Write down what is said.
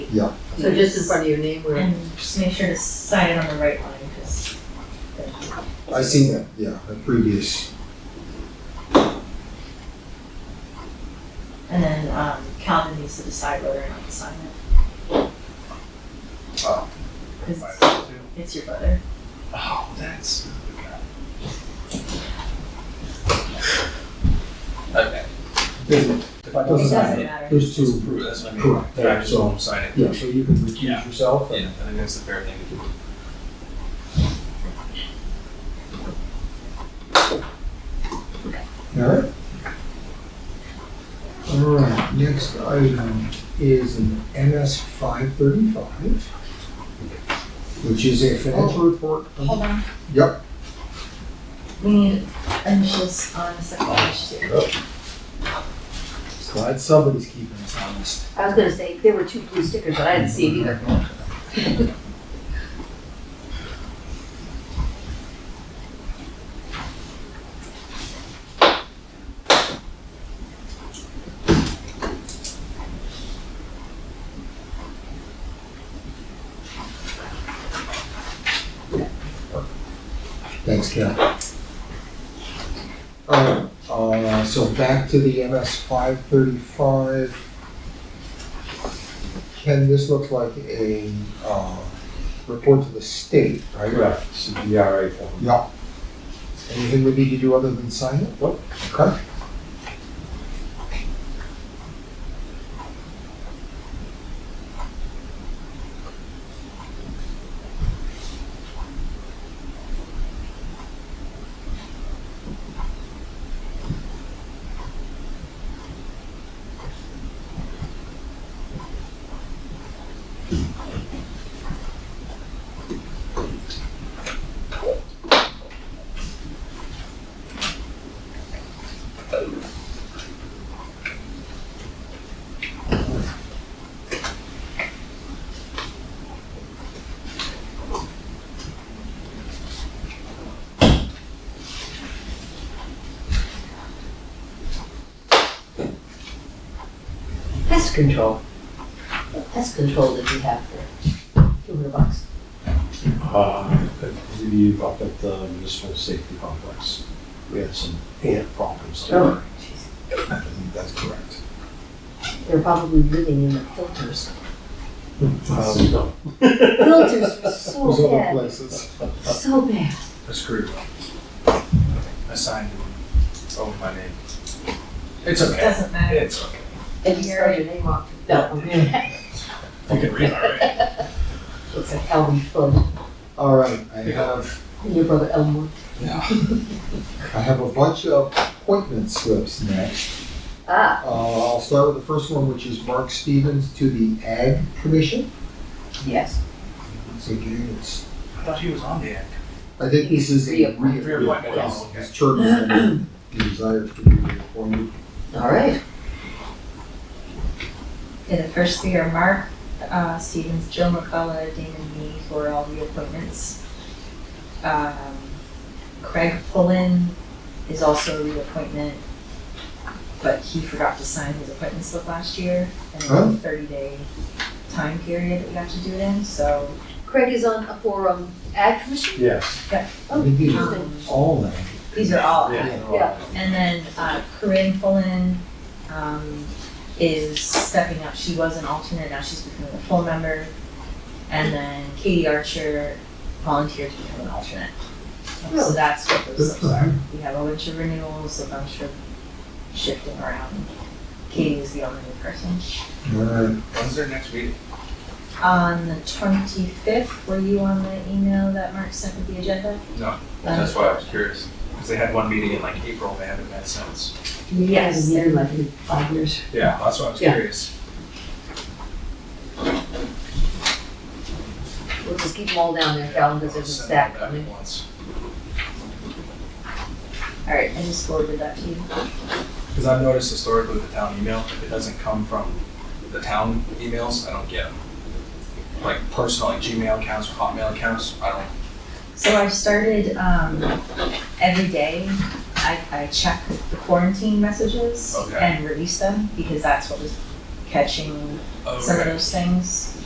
Yeah. So just in front of your name where, And just make sure to sign it on the right line, because. I seen that, yeah, a previous, And then, um, Calvin needs to decide whether or not to sign it. Oh. Because it's, it's your brother. Oh, that's. Okay. doesn't, If I It Doesn't doesn't matter. matter. there's two, Just approve, that's what I mean. Correct. But I just So- won't sign it. yeah, so you can Yeah. recuse yourself Yeah, and, I think that's the fair thing to do. all right? All right, next item is an MS five thirty-five, which is a financial report. Oh. Hold on, Yep, we need initials on the second page too. glad somebody's keeping us honest. I was gonna say, there were two blue stickers, but I didn't see it either. Thanks, Ken. All right, uh, so back to the MS five thirty-five. Ken, this looks like a, uh, report to the state, right? Correct, it's E a DRA form. Yeah. Anything we need to do other than sign it? Nope. Okay. Pest control. What pest control did you have for two hundred bucks? Uh, I believe up at the municipal safety complex, we had some ant problems. Oh, I think that's correct. They're probably living in the filters. Those Um, no, Filters were so other bad, places. so bad. I screwed up. I signed it over my name. It's It okay. Doesn't matter. It's okay. And you spelled your name wrong. No. You can read, all right? Looks like Elm Fudd, All right, I have, your brother Elmore. I have a bunch of appointment slips next. Ah, Uh, I'll start with the first one, which is Mark Stevens to the Ag Commission. yes. So again, it's, I thought he was on the act. I think this is a Reappointment. reappointment. Reappointment, okay. His term is ending. he desires to be reappointed. All right. Okay, the first three are Mark, uh, Stevens, Joe McCullough, Damon Me for all reappointments. Um, Craig Pullen is also a reappointment, but he forgot to sign his appointment slip last year. And it was a thirty day time period that we got to do it in, so. Craig is on a forum ag commission? Yes. Oh, Maybe. interesting. All that. um, These are all, Oh, Yeah. And then uh, Corinne Pullen um, is stepping up. She was an alternate, now she's becoming a full member. And then Katie Archer volunteered to become an alternate. So Really? that's what those slips are. We have a bunch of renewals, a bunch of shifting around. Katie is the only new person. All right, When's their next meeting? On the 25th, were you on the email that Mark sent with the agenda? No, Um, That's why I was curious. Because they had one meeting in like April, they haven't met since. Yes, Hasn't been they're- in like in five years. Yeah, that's why I was Yeah. curious. We'll just keep them all down there, Calvin, because there's a Send stack it back coming. once. all right, I just forwarded that to you. Because I've noticed historically with the town email, if it doesn't come from the town emails, I don't get them. Like personal, like Gmail accounts, or Hotmail accounts, I don't. So I started, um, every day, I, I check the quarantine messages Okay. and release them, because that's what was catching Oh, some of okay. those things.